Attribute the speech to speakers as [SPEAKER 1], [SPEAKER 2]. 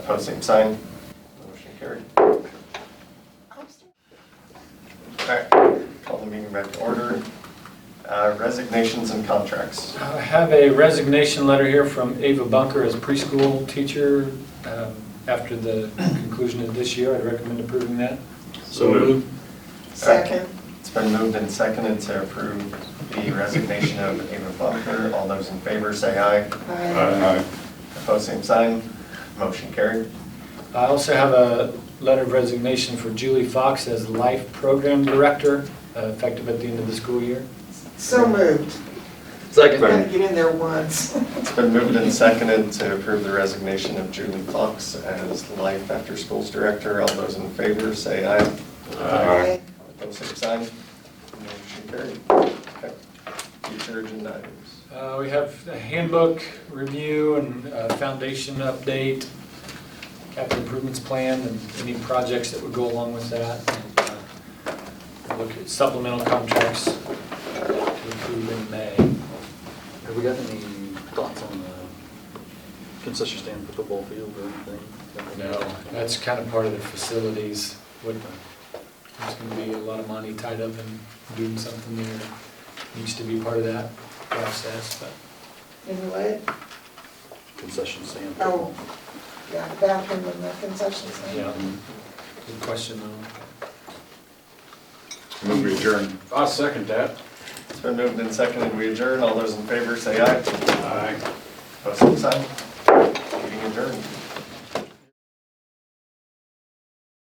[SPEAKER 1] Opposed, same sign. Motion carried. All right, call the meeting back to order. Uh, Resignations and contracts.
[SPEAKER 2] I have a resignation letter here from Ava Bunker as preschool teacher. Um, After the conclusion of this year, I'd recommend approving that.
[SPEAKER 3] So moved.
[SPEAKER 1] Second. It's been moved and seconded to approve the resignation of Ava Bunker. All those in favor say aye.
[SPEAKER 3] Aye.
[SPEAKER 1] Opposed, same sign. Motion carried.
[SPEAKER 2] I also have a letter of resignation for Julie Fox as Life Program Director, uh, effective at the end of the school year.
[SPEAKER 4] So moved. Gotta
[SPEAKER 3] Second.
[SPEAKER 4] get in there once.
[SPEAKER 1] It's been moved and seconded to approve the resignation of Julie Fox as Life After Schools Director. All those in favor say aye.
[SPEAKER 3] Aye.
[SPEAKER 1] Opposed, same sign. Motion carried. Okay. Future agenda items.
[SPEAKER 2] Uh, We have a handbook review and uh, foundation update, capital improvements plan, and any projects that would go along with that. and, uh, Look at supplemental contracts to approve in May.
[SPEAKER 5] Have we got any thoughts on the concession stand for football field or anything?
[SPEAKER 2] No, that's kind of part of the facilities. What- There's going to be a lot of money tied up in doing something there. Needs to be part of that process, but
[SPEAKER 4] Anyway,
[SPEAKER 5] Concession stand.
[SPEAKER 4] Oh. yeah, the bathroom and the concession stand.
[SPEAKER 2] yeah, um, good question though.
[SPEAKER 3] Move adjourned. I'll second that.
[SPEAKER 1] It's been moved and seconded. We adjourn. All those in favor say aye.
[SPEAKER 3] Aye.
[SPEAKER 1] Opposed, same sign. Meeting adjourned.